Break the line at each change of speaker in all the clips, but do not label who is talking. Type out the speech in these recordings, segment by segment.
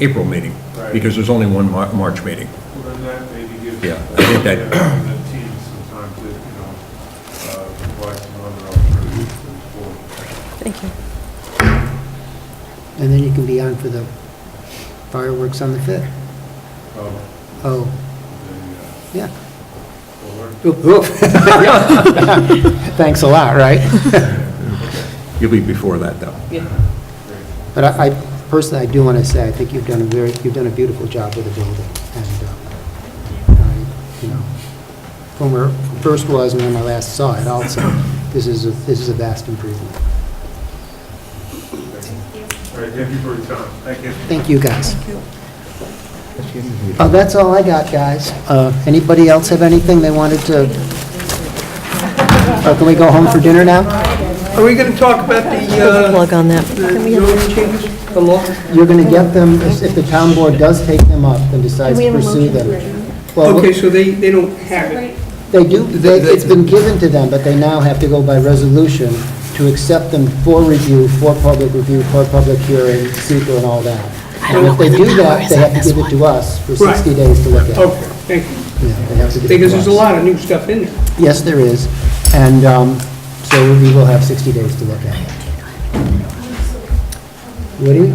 April meeting,
Right.
because there's only one Mar- March meeting.
Well, then that maybe gives the
Yeah, I think that-
the team some time to, you know, uh, provide some other alternatives to the board.
Thank you.
And then you can be on for the fireworks on the 5th.
Oh,
Oh,
the,
yeah.
uh, board.
Oop, oop. Thanks a lot, right?
You'll be before that, though.
Great.
But I I- personally, I do want to say, I think you've done a very, you've done a beautiful job with the building. And, um, I- you know, from where it first was and when I last saw it also, this is, a this is a vast improvement.
All right, thank you for your time. Thank you.
Thank you, guys. Uh, That's all I got, guys. Uh, Anybody else have anything they wanted to? Uh, Can we go home for dinner now?
Are we going to talk about
uh,
the,
Plug on that.
the law?
You're going to get them, if the town board does take them up and decides to pursue them. Well,
Okay, so they, they don't have it.
they do, they-
They-
it's been given to them, but they now have to go by resolution to accept them for review, for public review, for public hearing, secret and all that. And if they do that, they have to give it to us for 60
Right.
days to look at.
Okay, thank you.
Yeah, they have to give it to
Because there's a
us.
lot of new stuff in there.
Yes, there is, and um, so we will have 60 days to look at it. Woody,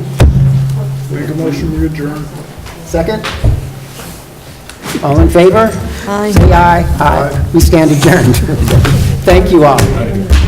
Make a motion to adjourn.
second? All in favor?
Aye.
Say aye. Aye. We stand adjourned. Thank you all.